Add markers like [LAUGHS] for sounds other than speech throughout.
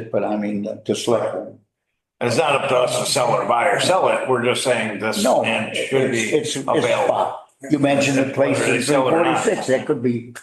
but I mean, the- the select. board. It's not up to us to sell it, buy or sell it. We're just saying this No. land it's- should be it's- it's available. spot. You mentioned a place Whether they in three sell it or not. Mm-hmm. forty-six, that could be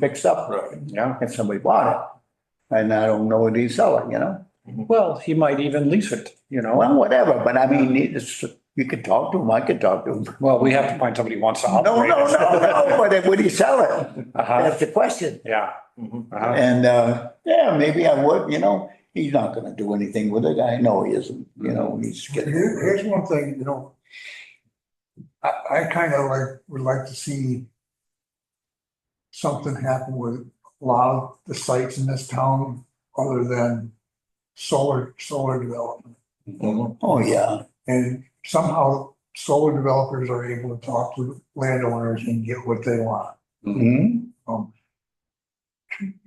fixed up, Right. you know, if somebody bought it. And I don't know if they sell it, you know, Well, he might even lease it, you know? well, whatever, but I mean, it's, you could talk to them, I could talk to them. Well, we have to find somebody who wants to No, no, operate no, [LAUGHS] no, [LAUGHS] but then would he sell Uh-huh. it? no. That's the question. Yeah. Mhm. Uh-huh. And, uh, yeah, maybe I would, you know, he's not gonna do anything with it, I know he isn't, you know, he's Here- getting. Here's one thing, you know. I, I kind of like, would like to see something happen with a lot of the sites in this town other than solar, solar development. Oh, yeah, And somehow solar developers are able to talk to landowners and get what they want. Mm-hmm. Mhm.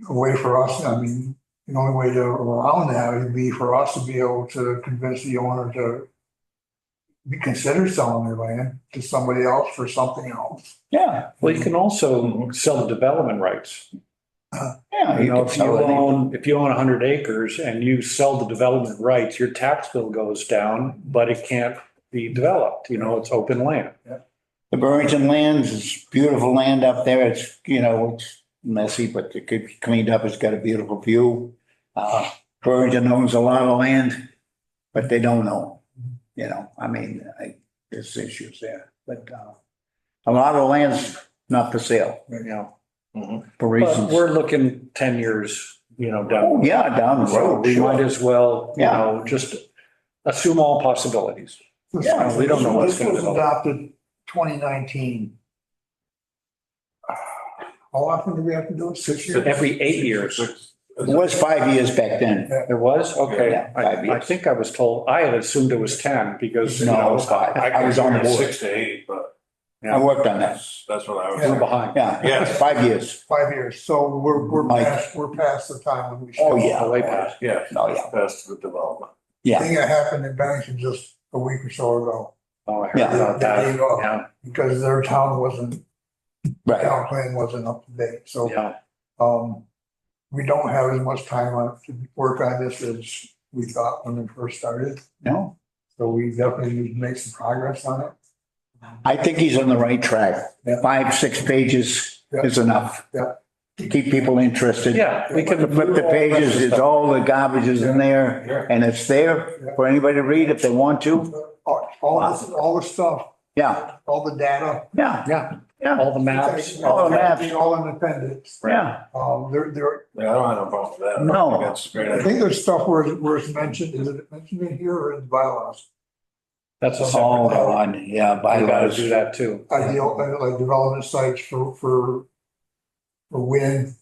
A way for us, I mean, the only way to around that would be for us to be able to convince the owner to be consider selling their land to somebody else for something else. yeah, Well, you can also sell the development rights. yeah. You know, could if you sell it. own, if you own hundred acres and you sell the development rights, your tax bill goes down, but it can't be developed, you know, it's open land. The Burlington lands is beautiful land up there. It's, you know, it's messy, but it could be cleaned up. It's got a beautiful view. Uh, Burlington owns a lot of land, but they don't own. You know, I mean, I, there's issues there, but, uh, a lot of land's not for sale You know, for but reasons. we're looking ten years, you know, down. Oh, yeah, down the So road. we might sure. as well, you Yeah. know, just assume all possibilities. Yeah, we don't know what's This gonna was develop. adopted twenty nineteen. How often do we have to do it? Six years? Every eight years. It was five years back then. There was? Okay. Yeah, five I, I years. think I was told, I had assumed it was 10 because, you No, know, I- I was on consider it board. Six to eight, but I worked on that. that's, that's what I was. Yeah. we're behind. Yeah. Yes. Five years. Five years, so we're, we're Mike. past, we're past the time when we should. Oh, yeah. Way past. Yeah, Oh, yeah. that's the development. Yeah. Thing that happened in Bennington just a week or so ago, Oh, I heard Yeah. about There that. you go. Yeah, because their town wasn't, Right. town plan wasn't up to date, so. yeah. Um, we don't have as much time on, to work on this as we thought when we first started, No, so we definitely need to make some progress on it. I think he's on the right track. Yeah. Five, six pages is enough. Yeah. To keep people interested. Yeah, we can. Flip the pages, it's all the garbage is in there Yeah. and it's there for anybody to read if they want to. All, all this, all the stuff, Yeah, all the data. yeah, Yeah, yeah, all the maps. All the maps. everything, All in appendix. yeah. Um, there, there, Yeah, I don't have a problem with that. No. That's a great. I idea. think there's stuff where, it's- where it's mentioned, is it mentioned in here or in the bylaws? That's a Oh, separate. God, yeah, I gotta bylaws. do that too. Ideal, uh, like development sites for, for, for wind,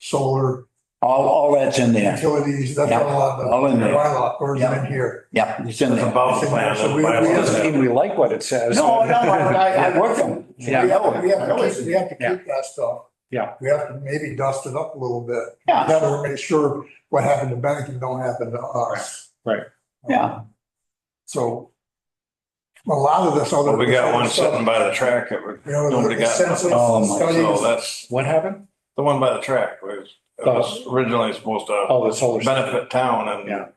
solar, All, all that's in there. utilities, that's Yeah. all on the All in there. bylaw, or is it in here? Yeah, it's in It's there. above the plan. So we- we It that's doesn't the bylaws. mean we like what it says. No, no, I, I worked them. Yeah. We owe it. We have to keep, we have to Yeah. keep that stuff. Yeah. We have to maybe dust it up a little bit. Yeah. That will make sure what happened to Bennington don't happen to us. Um, Right. Yeah. So a lot of this other. Well, we got one sitting by the track that we, You know, nobody the got. census Oh, my So studies, that's What happened? the one by the track was, it was Oh. originally supposed to Oh, the solar. benefit town Yeah. and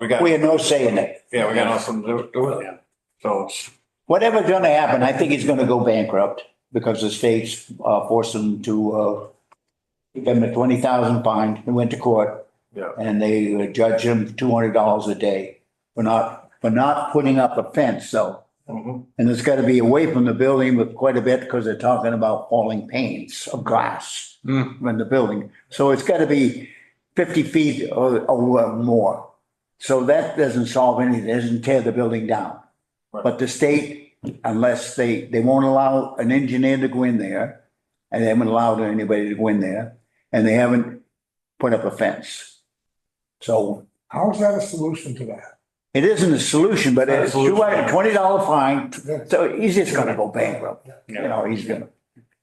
we got, We had no say in it. yeah, we got nothing to do- do with it. Yeah. So it's, Whatever's gonna happen, I think he's gonna go bankrupt because the state's uh, forced him to, uh, give him a twenty thousand fine. He went to court. Yeah. And they judge him two hundred dollars a day for not, for not putting up a fence, so. mhm. And it's gotta be away from the building with quite a bit because they're talking about falling panes of glass Hmm. from the building. So it's gotta be fifty feet or, or more. So that doesn't solve anything, doesn't tear the building down. Right. But the state, unless they, they won't allow an engineer to go in there, and they haven't allowed anybody to go in there, and they haven't put up a fence. So how is that a solution to that? it it isn't a solution, but it's two hundred Absolutely. and twenty dollar fine, That's so he's just gonna go bankrupt. You Yeah. know, he's gonna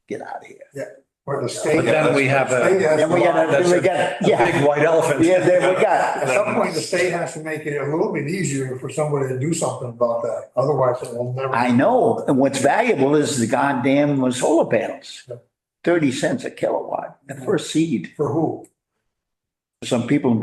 get out of here. Where the state. But then we have State a has Then we to- got, then we got, yeah, big white elephant. yeah, then we At got, some point, the state has to make it a little bit easier for somebody to do something about that. Otherwise, it will never. I know, and what's valuable is the goddamn solar panels. Thirty cents a kilowatt, the first seed. For who? some people in